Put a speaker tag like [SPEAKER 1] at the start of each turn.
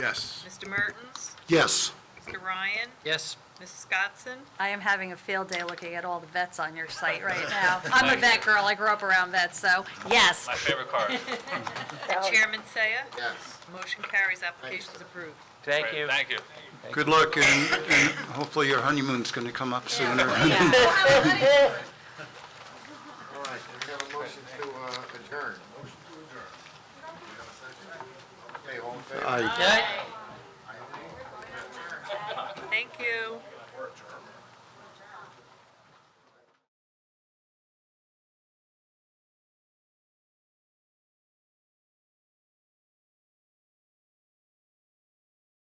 [SPEAKER 1] Yes.
[SPEAKER 2] Mr. Mertens?
[SPEAKER 1] Yes.
[SPEAKER 2] Mr. Ryan?
[SPEAKER 3] Yes.
[SPEAKER 2] Mrs. Scottson?
[SPEAKER 4] I am having a field day looking at all the vets on your site right now. I'm a vet girl, I grew up around vets, so yes.
[SPEAKER 5] My favorite card.
[SPEAKER 2] Chairman Saya?
[SPEAKER 1] Yes.
[SPEAKER 2] Motion carries, application's approved.
[SPEAKER 3] Thank you.
[SPEAKER 5] Thank you.
[SPEAKER 1] Good luck, and and hopefully your honeymoon's going to come up sooner.
[SPEAKER 6] All right, we have a motion to uh, adjourn. Okay, all in favor?
[SPEAKER 1] Aye.
[SPEAKER 3] Yeah.
[SPEAKER 2] Thank you.